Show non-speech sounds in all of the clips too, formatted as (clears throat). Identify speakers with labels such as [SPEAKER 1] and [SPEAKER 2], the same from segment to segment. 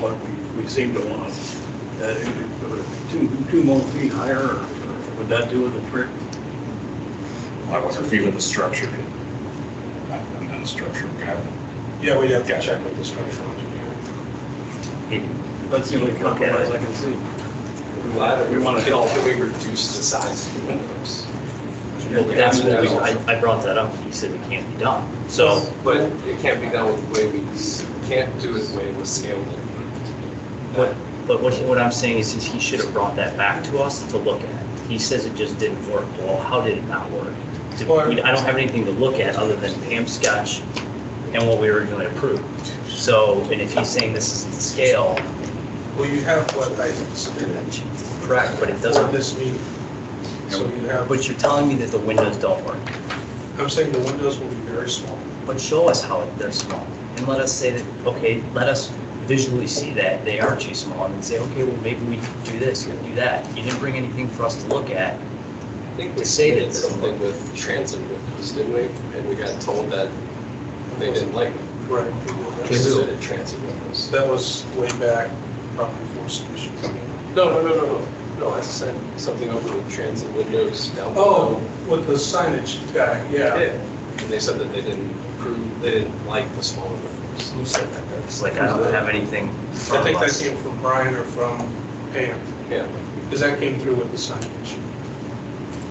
[SPEAKER 1] what we, we seem to want. That it- it would it be two, two more feet higher, or would that do the trick?
[SPEAKER 2] I wasn't feeling the structure. I'm not a structure guy.
[SPEAKER 3] Yeah, we'd have to check with the structural engineer.
[SPEAKER 1] That's the only compromise I can see. We want to help.
[SPEAKER 3] Can we reduce the size of the windows?
[SPEAKER 4] Well, that's what we, I, I brought that up, and he said it can't be done, so,
[SPEAKER 3] But it can't be done with the way we, s- can't do it the way it was scaled. in.
[SPEAKER 4] what, but what, what I'm saying is, is he should have brought that back to us to look at. He says it just didn't work, well, how did it not work? Did- we- I don't have anything to look at other than Pam's sketch and what we originally approved. So, and if he's saying this isn't the scale,
[SPEAKER 5] Well, you have what I submitted
[SPEAKER 4] correct, but it
[SPEAKER 5] for
[SPEAKER 4] doesn't,
[SPEAKER 5] this meeting. So you have,
[SPEAKER 4] but you're telling me that the windows don't work.
[SPEAKER 5] I'm saying the windows will be very small.
[SPEAKER 4] but show us how they're small. And let us say that, okay, let us visually see that they are too small and then say, okay, well, maybe we could do this or do that. You didn't bring anything for us to look at.
[SPEAKER 3] I think
[SPEAKER 4] To
[SPEAKER 3] we
[SPEAKER 4] say that
[SPEAKER 3] did
[SPEAKER 4] it's-
[SPEAKER 3] something with transit windows, didn't we? And we got told that they didn't like it.
[SPEAKER 5] Right.
[SPEAKER 3] They considered transit windows.
[SPEAKER 5] That was way back, probably before submission.
[SPEAKER 3] No, no, no, no, no. No, I said something over with transit windows down
[SPEAKER 5] Oh,
[SPEAKER 3] below.
[SPEAKER 5] with the signage guy, yeah.
[SPEAKER 3] And they said that they didn't approve, they didn't like the smaller windows.
[SPEAKER 4] Who said that? It's like, I don't have anything from
[SPEAKER 5] I think that
[SPEAKER 4] us.
[SPEAKER 5] came from Brian or from Pam,
[SPEAKER 3] Yeah.
[SPEAKER 5] because that came through with the signage.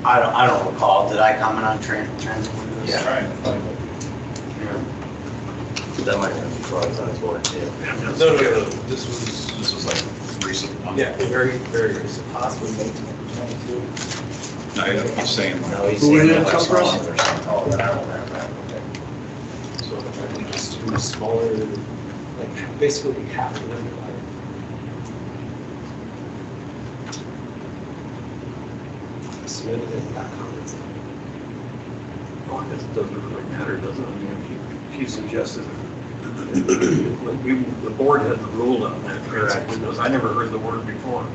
[SPEAKER 6] I don't, I don't recall, did I comment on tran, trans?
[SPEAKER 3] Yeah.
[SPEAKER 4] That might have been brought on board too.
[SPEAKER 2] No, no, no, this was, this was like recent.
[SPEAKER 3] Yeah, very, very recent. Possibly twenty-two.
[SPEAKER 2] No, I'm just saying. like-
[SPEAKER 4] No, he's
[SPEAKER 1] Who
[SPEAKER 4] saying
[SPEAKER 1] did it
[SPEAKER 4] they're
[SPEAKER 1] come from?
[SPEAKER 4] small, they're small, but I don't remember.
[SPEAKER 3] So if I can just do smaller, like basically half the window height. Submitted it, not comments.
[SPEAKER 1] It doesn't really matter, does it? I mean, she- she suggested, that we, the board had the rule on that, correct? Windows, I never heard the word before,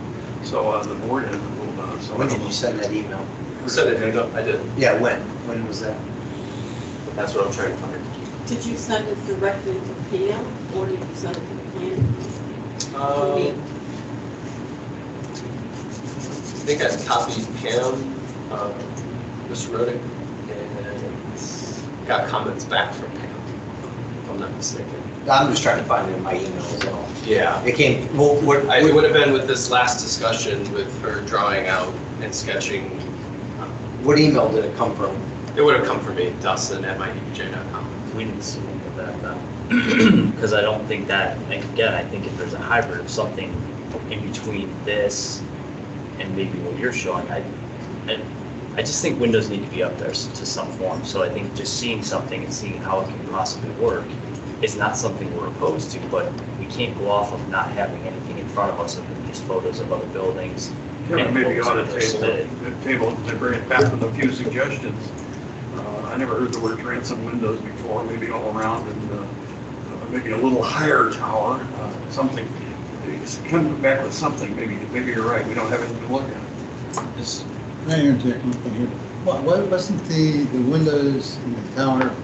[SPEAKER 1] so uh, the board had the rule on it, so. I
[SPEAKER 6] When
[SPEAKER 1] don't
[SPEAKER 6] did you send that email?
[SPEAKER 1] know.
[SPEAKER 3] Said it, I don't- I did.
[SPEAKER 6] Yeah, when, when was that?
[SPEAKER 3] That's what I'm trying to find.
[SPEAKER 7] Did you send it directly to Pam, or did you send it to Pam? Or me?
[SPEAKER 3] Um, I think I copied Pam, um, Mr. Roddick, and got comments back from Pam, if I'm not mistaken.
[SPEAKER 6] I'm just trying to find it in my email as well.
[SPEAKER 3] Yeah.
[SPEAKER 6] It came, well, what,
[SPEAKER 3] I- It would have been with this last discussion with her drawing out and sketching.
[SPEAKER 6] what email did it come from?
[SPEAKER 3] It would have come from me, Dustin at E mydbj.com.
[SPEAKER 4] We didn't see any of that then. (clears throat) Because I don't think that, like, again, I think if there's a hybrid of something in between this and maybe what you're showing, I, I, I just think windows need to be up there s- to some form. So I think just seeing something and seeing how it can possibly work is not something we're opposed to, but we can't go off of not having anything in front of us other than just photos of other buildings.
[SPEAKER 1] Kevin,
[SPEAKER 4] and
[SPEAKER 1] maybe
[SPEAKER 4] what
[SPEAKER 1] ought to
[SPEAKER 4] was
[SPEAKER 1] table,
[SPEAKER 4] submitted.
[SPEAKER 1] it- table, it to bring it back with a few suggestions. Uh, I never heard the word transom windows before, maybe all around and, uh, maybe a little higher tower, uh, something. Just Come back with something, maybe, maybe you're right, we don't have anything to look at.
[SPEAKER 8] Can I interject one thing here? Why, why wasn't the, the windows in the tower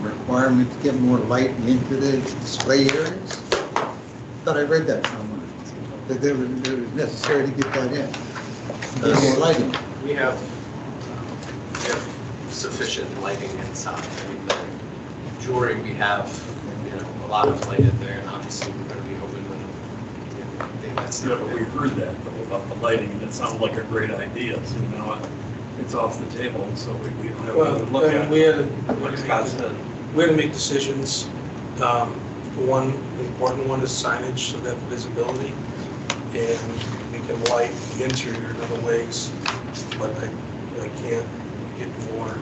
[SPEAKER 8] requirement to get more light into the display areas? Thought I read that somewhere, that they were, they were necessary to get that in. Get more lighting.
[SPEAKER 3] We have um, we have sufficient lighting inside. I mean, the Jewelry, we have, you know, a lot of light in there, and obviously we're going to be open when, you know, daylight's
[SPEAKER 1] Yeah,
[SPEAKER 3] not
[SPEAKER 1] but we
[SPEAKER 3] there.
[SPEAKER 1] heard that though, about the lighting, and it sounded like a great idea, so now it- it's off the table, and so we we don't have
[SPEAKER 5] Well,
[SPEAKER 1] anything to look
[SPEAKER 5] then
[SPEAKER 1] at.
[SPEAKER 5] we had, to-
[SPEAKER 1] What is that?
[SPEAKER 5] we had to make decisions. Um, the One important one is signage, so that visibility, and we can light the interior in other ways, but I, I can't get more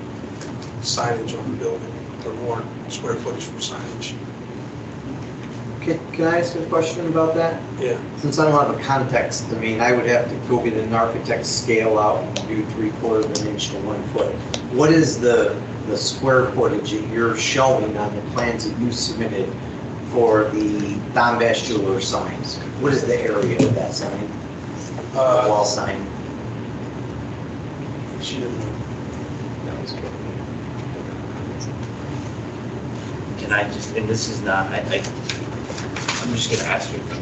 [SPEAKER 5] signage on the building, or more square footage from signage.
[SPEAKER 6] Can, can I ask a question about that?
[SPEAKER 5] Yeah,
[SPEAKER 6] Since I don't have a context, I mean, I would have to go get an architect's scale out and do three quarter of an inch to one foot. What is the, the square footage that you're showing on the plans that you submitted for the Don Bass Jeweler signs? What is the area of that sign,
[SPEAKER 5] Uh,
[SPEAKER 6] wall sign?
[SPEAKER 5] she didn't.
[SPEAKER 3] That was good.
[SPEAKER 4] Can I just, and this is not, I, I, I'm just gonna ask you,